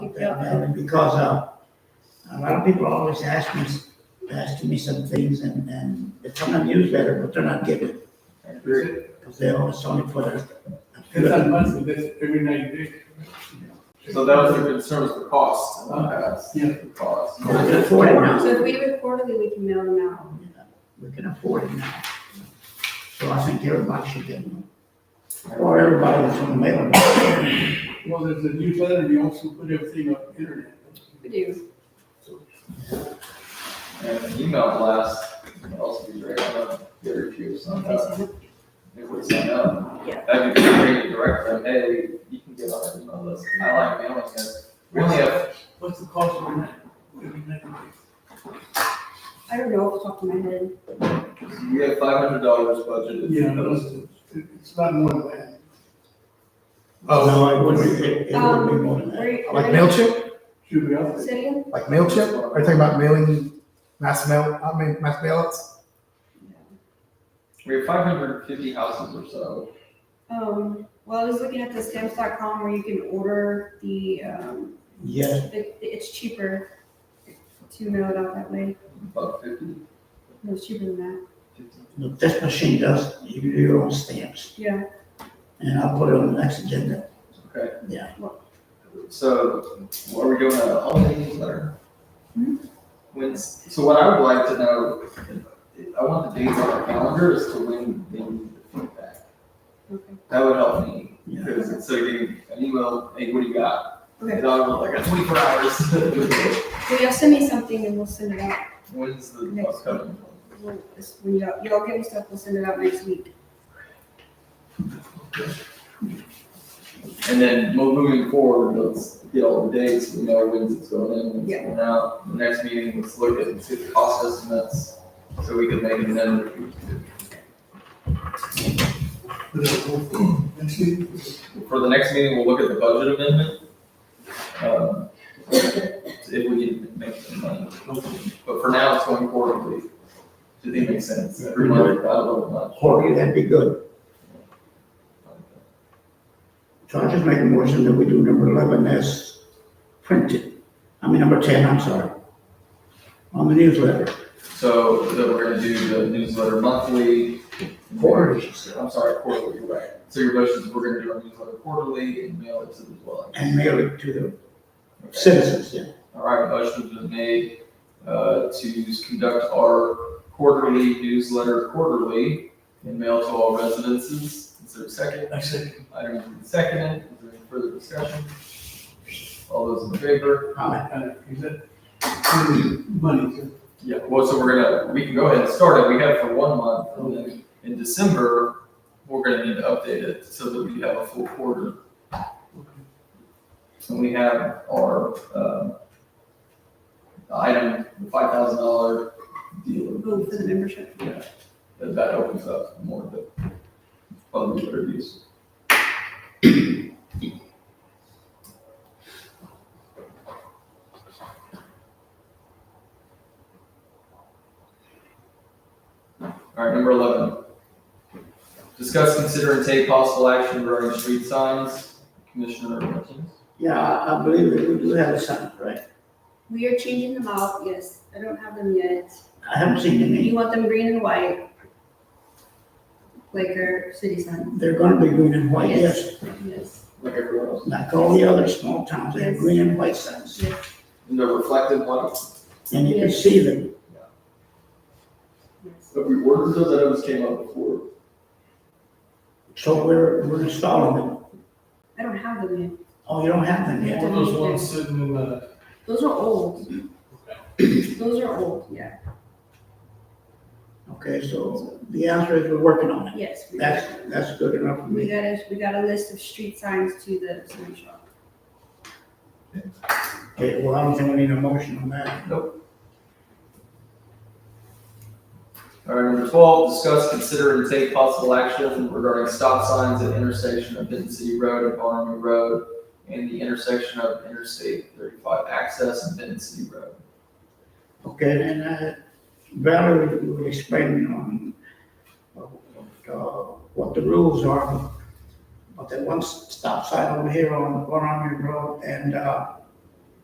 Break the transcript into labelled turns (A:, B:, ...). A: Yeah, and because, uh, a lot of people always ask me, asking me some things and, and it's on the newsletter, but they're not getting it.
B: It's
A: Cause they always only put a. a few
B: not
A: of
B: much,
A: them.
B: but that's every night, Dick.
C: So that was your concern was the cost.
B: Yeah.
C: The cost.
A: We can afford it now.
D: So if we do it quarterly, we can mail them out.
A: We can afford it now. So I think everybody should get one. Or everybody that's on the mailing list.
B: Well, there's a newsletter, you also put everything up internet.
D: We do.
C: And email blast, what else would be great, I don't know, get a few, some, uh, if we sign up.
D: Yeah.
C: That'd be great to direct them, hey, you can get on our email list. I like mailing it. We only have,
B: What's the cost of that? Every night.
D: I don't know off the top of my head.
C: we have five hundred dollars budgeted.
B: Yeah, no, it's, it's not more than that.
A: Oh, no, it would be, it it would be more
D: Um,
A: than that.
D: where-
E: Like MailChimp?
B: Should be out there.
D: Say again?
E: Like MailChimp? Are you talking about mailing, mass mail, I mean, mass mailouts?
C: We have five hundred and fifty houses or so.
D: Um, well, I was looking at the stamps.com where you can order the, um,
A: Yes,
D: it, it's cheaper to mail it out that way.
C: About fifty,
D: No, it's cheaper than that.
C: fifty.
A: look, this machine does, you do your own stamps
D: Yeah,
A: and I'll put it on the next agenda.
C: Okay.
A: Yeah.
C: So, what are we doing a holiday newsletter?
D: Hmm?
C: When's, so what I would like to know, I want the dates on our calendar as to when they need the feedback.
D: okay.
C: That would help me,
A: Yeah.
C: because it's so getting an email, hey, what do you got?
D: Okay,
C: And I would like, I got twenty-four hours.
D: so y'all send me something and we'll send it out.
C: When's the
D: Next
C: upcoming?
D: We'll- this- When y'all, y'all give me stuff, we'll send it out next week.
C: And then mo- moving forward, let's get all the dates, we know when it's going in, when it's
D: Yeah.
C: going out. The next meeting, let's look at, let's get the cost estimates, so we can make an amendment
B: Next week,
C: For the next meeting, we'll look at the budget amendment. um, If we can make some money. But for now, it's going quarterly. Do they make sense? Every month, I don't know
A: Or that'd be good.
C: much.
A: So I just make a motion that we do number eleven as printed. I mean, number ten, I'm sorry. On the newsletter,
C: So then we're gonna do the newsletter monthly.
A: quarterly, she said,
C: I'm sorry, quarterly, you're right. So your motion is we're gonna do our newsletter quarterly and mail it to the dwelling.
A: and mail it to the
C: Okay.
A: citizens, yeah.
C: All right, motion has been made uh, to conduct our quarterly newsletter quarterly and mail to all residences. Is there a second?
B: I said,
C: Item has been seconded. Is there any further discussion? All those in favor?
A: Comment.
B: uh, is that money? so-
C: Yeah, well, so we're gonna, we can go ahead and start it. We have for one month. and then In December, we're gonna need to update it so that we have a full quarter. And we have our, um, item, the five thousand dollar deal.
D: Oh, for the membership.
C: Yeah, that, that opens up more of the public interviews. All right, number eleven. Discuss, consider, and take possible action regarding street signs. Commissioner Martinez?
A: Yeah, I, I believe that we do have a sign, right?
D: We are changing them out, yes. I don't have them yet.
A: I haven't seen any.
D: You want them green and white? Like our city sign?
A: They're gonna be green and white, yes.
D: Yes,
C: Like everyone else.
A: Like all the other small towns, they have
D: Yes.
A: green and white signs,
D: yes.
C: And the reflective ones,
A: and you can
D: Yes.
A: see them.
D: yes.
C: but we ordered those, I know this came up before.
A: So we're, we're installing them.
D: I don't have them yet.
A: Oh, you don't have them yet?
D: One of those ones sitting in the. Those are old. Those are old, yeah,
A: Okay, so the answer is we're working on it.
D: yes. we-
A: That's, that's good enough for
D: We
A: me.
D: got a, we got a list of street signs to the sign shop.
A: Okay, well, I don't think we need a motion on that.
C: All right, number twelve, discuss, consider, and take possible action regarding stop signs at intersection of Benton City Road and Barnum Road and the intersection of Interstate thirty-five access and Benton City Road.
A: Okay, and, uh, Valerie will explain on, uh, what the rules are. But that one stop sign over here on Barnum Road and, uh,